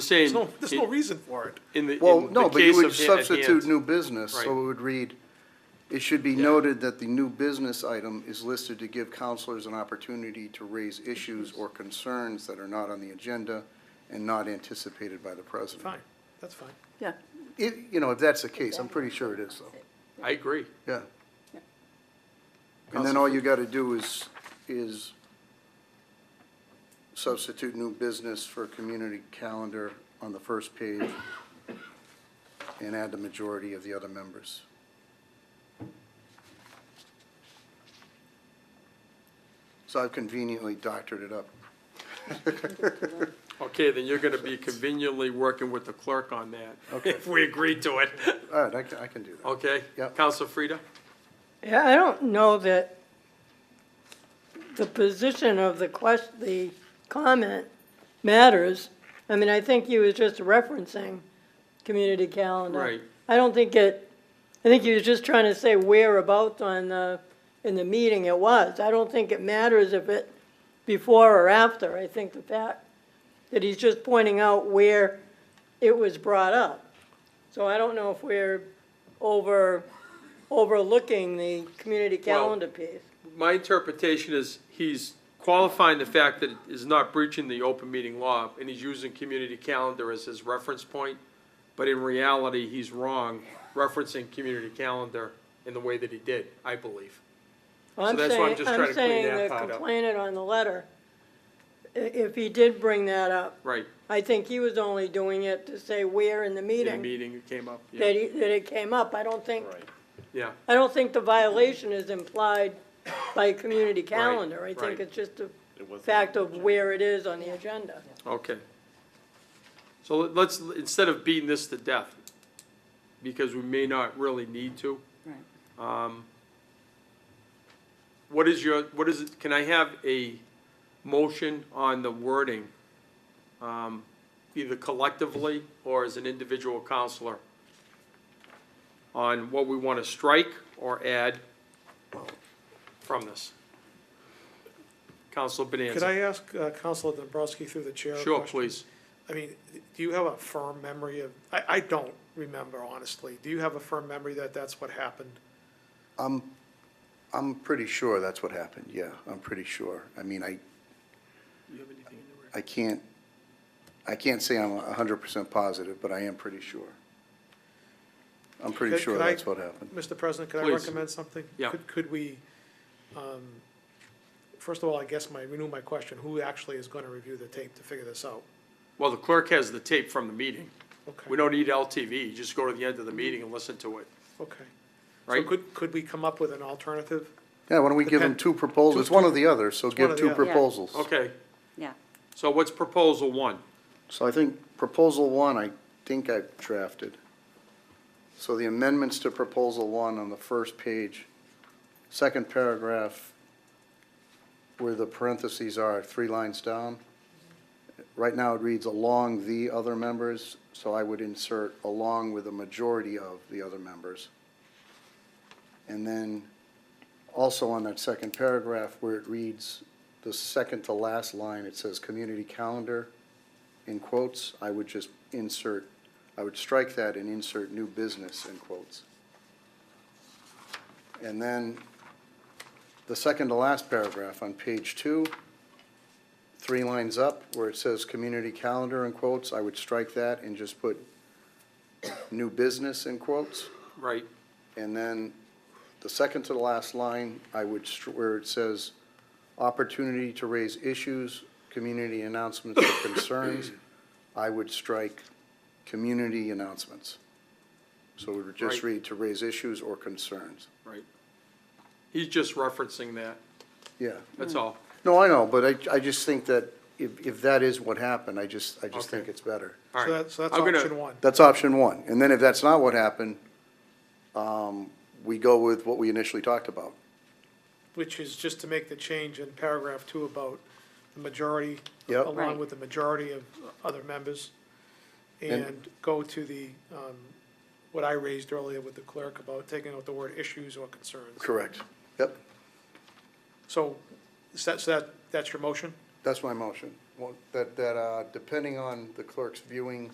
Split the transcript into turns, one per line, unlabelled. Saying,
There's no, there's no
in
reason for it.
in the, in the case of.
Well, no, but you would
ha- at hand.
substitute new business, so
Right.
it would read, it should be noted that the new business item is listed to give counselors an opportunity to raise issues or concerns that are not on the agenda and not anticipated by the president.
Fine, that's fine.
Yeah,
If, you know, if that's the case, I'm pretty sure it is, though,
I agree.
yeah. And then all you gotta do is, is substitute new business for community calendar on the first page and add the majority of the other members. So I've conveniently doctored it up.
Okay, then you're gonna be conveniently working with the clerk on that, if we agree to it,
All right, I can, I can do that.
okay?
Yep.
Counsel Frida?
Yeah, I don't know that the position of the question, the comment matters. I mean, I think he was just referencing community calendar.
Right.
I don't think it, I think he was just trying to say whereabouts on the, in the meeting it was. I don't think it matters if it before or after. I think the fact that he's just pointing out where it was brought up. So I don't know if we're over, overlooking the community calendar piece.
My interpretation is he's qualifying the fact that it is not breaching the open meeting law, and he's using community calendar as his reference point, but in reality, he's wrong referencing community calendar in the way that he did, I believe.
I'm
that's why I'm
saying,
just trying
I'm
to clean
saying
that
the
part up.
complainant on the letter, i- if he did bring that up,
Right,
I think he was only doing it to say where in the
in the
meeting
meeting it came up,
that
yeah,
he, that it came up. I don't think,
yeah.
I don't think the violation is implied by community calendar. I
right.
think it's just a fact of where it is on the agenda.
Okay. So let- let's, instead of beating this to death, because we may not really need to,
right.
um, what is your, what is it, can I have a motion on the wording? um, Either collectively or as an individual counselor? On what we want to strike or add from this? Counselor
Could
Bonanza?
I ask uh, Counselor Dombrowski through the chair? a
Sure,
question?
please.
I mean, do you have a firm memory of, I, I don't remember honestly. Do you have a firm memory that that's what happened?
I'm, I'm pretty sure that's what happened, yeah, I'm pretty sure. I mean, I, I can't, I can't say I'm a hundred percent positive, but I am pretty sure. I'm pretty
Could-
sure
could I-
that's what happened.
Mr. President, could I
Please.
recommend something?
Yeah.
Could- Could we, um, first of all, I guess my, renew my question, who actually is going to review the tape to figure this out?
Well, the clerk has the tape from the meeting. We
Okay,
don't need LTV, you just go to the end of the meeting and listen to it,
okay. So
right?
could, could we come up with an alternative?
Yeah, why don't we give them
Depend-
two proposals, it's one or the other, so
one
give
or
two
the other.
Yeah.
proposals.
Okay,
Yeah,
so what's proposal one?
So I think proposal one, I think I've drafted. So the amendments to proposal one on the first page, second paragraph, where the parentheses are, three lines down. Right now it reads along the other members, so I would insert along with a majority of the other members. And then also on that second paragraph where it reads, the second to last line, it says community calendar in quotes, I would just insert, I would strike that and insert new business in quotes. And then the second to last paragraph on page two, three lines up where it says community calendar in quotes, I would strike that and just put new business in quotes.
Right,
And then the second to the last line, I would, str- where it says, opportunity to raise issues, community announcements or concerns, I would strike community announcements. So we would just
Right.
read to raise issues or concerns.
right. He's just referencing that,
Yeah.
that's all.
No, I know, but I, I just think that if, if that is what happened, I just, I just
Okay.
think it's better.
All
So
right.
that's, so that's
I'm gonna-
option one.
That's option one. And then if that's not what happened, um, we go with what we initially talked about.
which is just to make the change in paragraph two about the majority,
Yep.
along
Right.
with the majority of other members,
And-
and go to the, um, what I raised earlier with the clerk about taking out the word issues or concerns.
Correct. Yep.
So, is that, so that, that's your motion?
That's my motion. that, that, uh, depending on the clerk's viewing